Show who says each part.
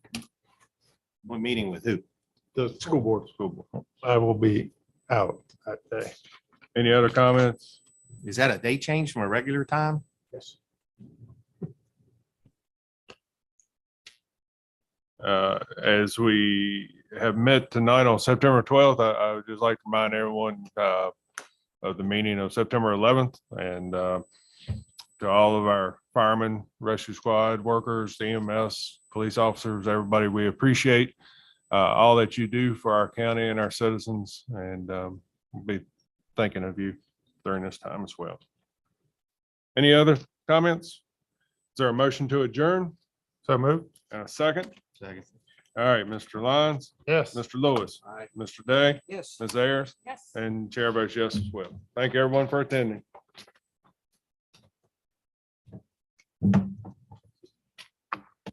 Speaker 1: We're meeting with who?
Speaker 2: the school board.
Speaker 1: School board.
Speaker 2: I will be out that day.
Speaker 3: Any other comments?
Speaker 1: Is that a day change from a regular time?
Speaker 2: Yes.
Speaker 3: Uh, As we have met tonight on September 12th, I- I would just like to remind everyone uh, of the meeting of September 11th and uh, to all of our firemen, rescue squad workers, EMS, police officers, everybody, we appreciate uh, all that you do for our county and our citizens and um, we'll be thinking of you during this time as well. Any other comments? Is there a motion to adjourn?
Speaker 2: So moved?
Speaker 3: And a second?
Speaker 1: Second.
Speaker 3: All right, Mr. Lyons,
Speaker 2: Yes.
Speaker 3: Mr. Lewis,
Speaker 2: Aye.
Speaker 3: Mr. Day,
Speaker 4: Yes.
Speaker 3: Ms. Ayers,
Speaker 4: Yes.
Speaker 3: and Chair votes yes as well. Thank you, everyone, for attending.